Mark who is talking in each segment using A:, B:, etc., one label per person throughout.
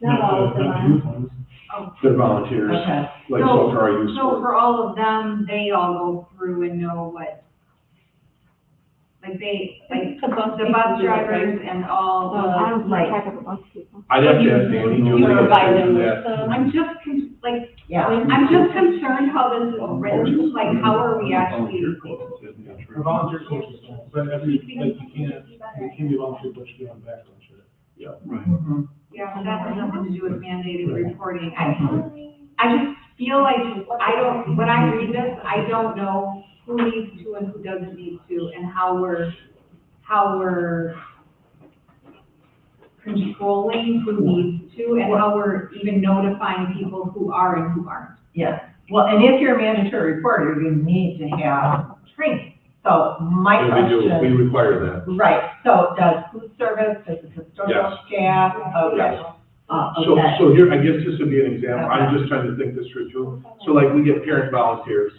A: Not all of them
B: Not
A: are.
B: youth ones.
A: Oh.
B: The volunteers,
C: Okay,
B: like
A: No,
B: so for our youth
A: So
B: sport.
A: for all of them, they all go through and know what, like they, like
D: The bus
A: the bus drivers and all
D: I
A: the,
D: don't keep
A: like,
D: track of the bus people.
B: I'd have to ask
C: You-
B: Andy.
C: you
B: Newman if
C: provide
B: they
C: them
B: do
C: with
B: that.
C: the-
A: I'm just, con- like,
C: yeah.
D: um,
A: I'm just concerned how this is written, like, how are we actually?
E: Volunteer coaches, isn't that true?
B: For volunteer coaches, but every, like, you can't, you can't be volunteer, but you can't background check.
E: Right.
C: Mm-hmm.
A: Yeah, that has nothing to do with mandated reporting.
B: Uh-huh.
A: I, I just feel like, I don't, when I read this, I don't know who needs to and who doesn't need to, and how we're, how we're controlling who needs to, and how we're even notifying people who are and who aren't.
C: Yes, well, and if you're a mandatory reporter, you need to have training. So my
B: And we do, we
C: question,
B: require that.
C: right, so does food service, does the custodial staff, okay.
B: Yes.
C: Uh,
B: So,
C: okay,
B: so here, I guess this would be an example, I'm just trying to think this through too. So like, we get parent volunteers.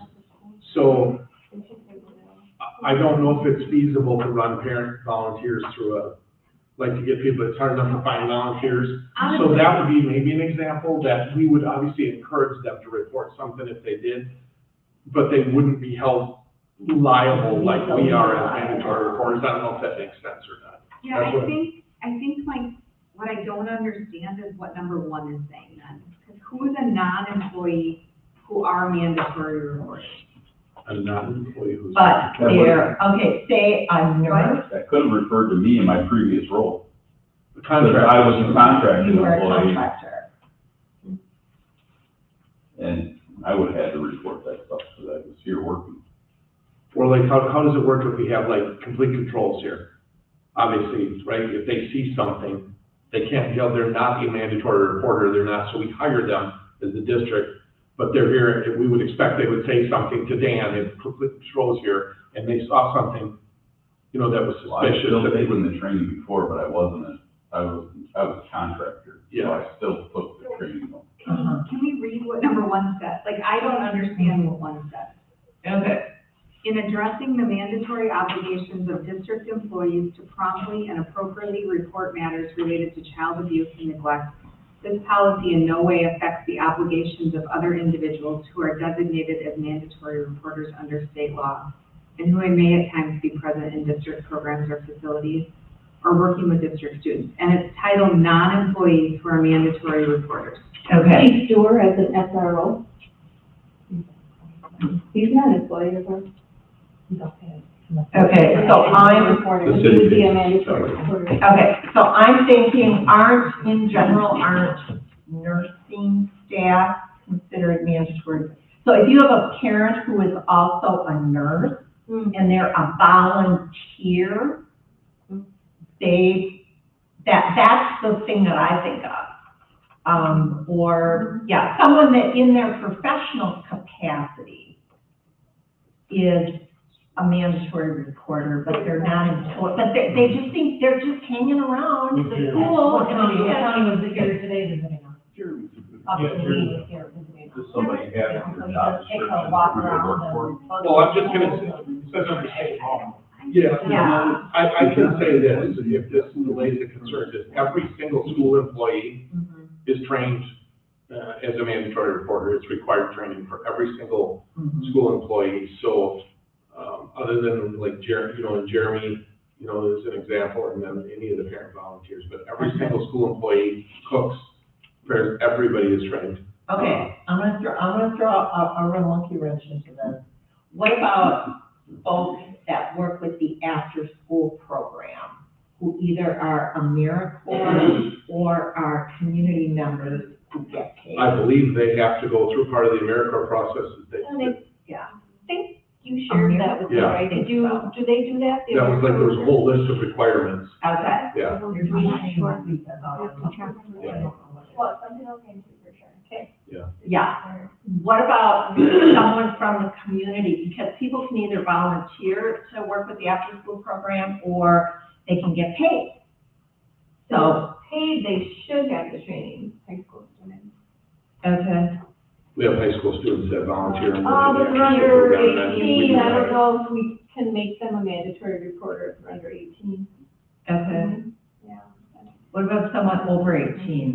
B: So I- I don't know if it's feasible to run parent volunteers through a, like to get people, it's hard enough to find volunteers. So
A: Honestly,
B: that would be maybe an example that we would obviously encourage them to report something if they did, but they wouldn't be held liable like we are as mandatory reporters. I don't know if that makes sense or not.
A: yeah,
B: that's what-
A: I think, I think like, what I don't understand is what number one is saying then. Because who is a non-employee who are mandatory reporters?
B: I'm not an employee who's.
C: but there, okay, say a nurse,
E: That could have referred to me in my previous role,
B: The
E: because
B: contract.
E: I was a contracted
C: you are a
E: employee,
C: contractor.
E: and I would have had to report that stuff, because I was here working.
B: Or like, how, how does it work if we have like complete controls here? Obviously, right, if they see something, they can't tell, they're not a mandatory reporter, they're not, so we hire them as the district. But they're here, and we would expect they would say something to Dan if complete controls here, and they saw something, you know, that was
E: Well, I was
B: suspicious.
E: still
B: that they
E: taking
B: would-
E: the training before, but I wasn't a, I was, I was a contractor, so I still took the training.
C: Uh-huh.
A: Can can we read what number one says? Like, I don't understand what one says.
C: Okay,
A: In addressing the mandatory obligations of district employees to promptly and appropriately report matters related to child abuse and neglect, this policy in no way affects the obligations of other individuals who are designated as mandatory reporters under state law and who may at times be present in district programs or facilities or working with district students. And it's titled non-employees who are mandatory reporters.
C: okay.
D: Chief Stewart as an SRO. He's not an employee of ours.
C: Okay, so I'm-
D: Reporter,
E: The
D: he
E: city
D: would be a
E: did.
D: mandatory
E: Sorry.
D: reporter.
C: Okay, so I'm thinking, aren't, in general, aren't nursing staff considered mandatory? So if you have a parent who is also a nurse and they're a volunteer, they, that, that's the thing that I think of. Um, or, yeah, someone that in their professional capacity is a mandatory reporter, but they're not employed, but they, they just think, they're just hanging around the
B: Yeah.
C: school. and they have-
F: was here today visiting us.
E: Jeremy's a good-
F: Up
B: Yeah,
F: to
B: sure.
F: me was here visiting us.
E: Does somebody have it in their job
F: Take
E: description?
F: a walk
E: who they
F: around
E: work for?
F: and.
B: Well, I'm just gonna, say- says under state law. Yeah.
C: Yeah.
B: I, I can say this, if this relates to concerns, is every single school employee
C: Mhm,
B: is trained uh, as a mandatory reporter. It's required training for every single
C: mhm.
B: school employee. So um, other than like Jeremy, you know, and Jeremy, you know, is an example, and then any of the parent volunteers, but every single school employee, cooks, prepares, everybody is trained.
C: Okay, I'm gonna throw, I'm gonna throw a, a real monkey wrench into this. What about folks that work with the after-school program, who either are AmeriCorps or are community members who get paid?
B: I believe they have to go through part of the AmeriCorps process. that they-
D: And they-
C: Yeah.
D: I think you shared that with me,
B: Yeah.
D: right? Did you, Oh, do they do that?
B: That was like, there was a whole list of requirements.
C: Okay.
B: Yeah.
D: I'm not sure.
B: Yeah.
D: Well, something I'll get into for sure. Okay.
C: Yeah. What about someone from the community? Because people can either volunteer to work with the after-school program, or they can get paid. So,
D: Paid, they should have the training, high school students.
C: okay.
B: We have high school students that volunteer. and
D: Uh,
B: work
D: but
B: in
D: they're
B: the after-school
D: under
B: program, and I think we
D: eighteen,
B: do
D: I
B: that.
D: don't know if we can make them a mandatory reporter if they're under eighteen.
C: Okay.
D: Yeah.
C: What about someone over eighteen?